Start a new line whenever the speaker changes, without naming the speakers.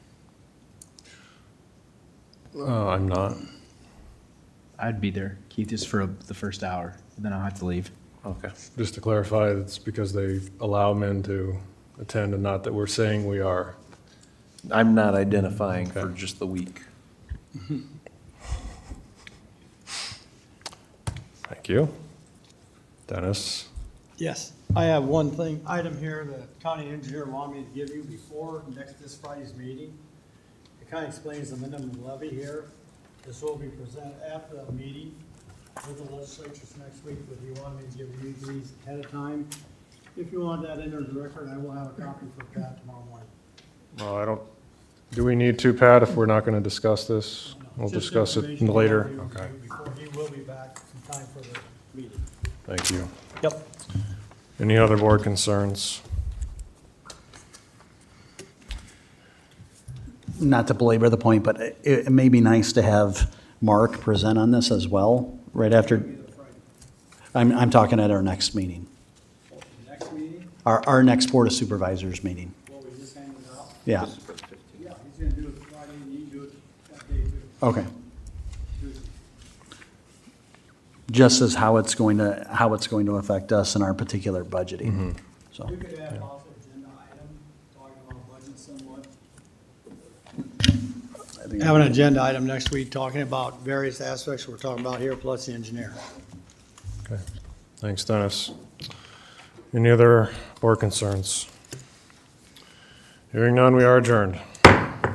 Uh, I'm not.
I'd be there, Keith, just for the first hour, and then I'll have to leave.
Okay. Just to clarify, it's because they allow men to attend and not that we're saying we are.
I'm not identifying for
Okay.
just the week.
Thank you. Dennis?
Yes, I have one thing, item here, the county engineer wanted me to give you before next this Friday's meeting. It kind of explains the minimum levy here. This will be presented after that meeting with the legislatures next week, but he wanted me to give you these ahead of time. If you want that entered in the record, I will have a copy for Pat tomorrow morning.
Well, I don't, do we need to, Pat, if we're not going to discuss this? We'll
Just
discuss it
information he
later.
wanted me to
Okay,
give you Before he will be back in time for the meeting.
thank you.
Yep.
Any other board concerns?
not to belabor the point, but it, it may be nice to have Mark present on this as well, right after. I'm, I'm talking at our next meeting,
Next meeting,
our, our next Board of Supervisors meeting.
what we just handed out.
Yeah,
Yeah, he's gonna do it Friday, and you do it that day too.
okay. Just as how it's going to, how it's going to affect us in our particular budgeting, so.
You could add also agenda item, talking about budget somewhat.
I think-
Have an agenda item next week, talking about various aspects we're talking about here, plus the engineer.
Okay, thanks, Dennis. Any other board concerns? Hearing none, we are adjourned.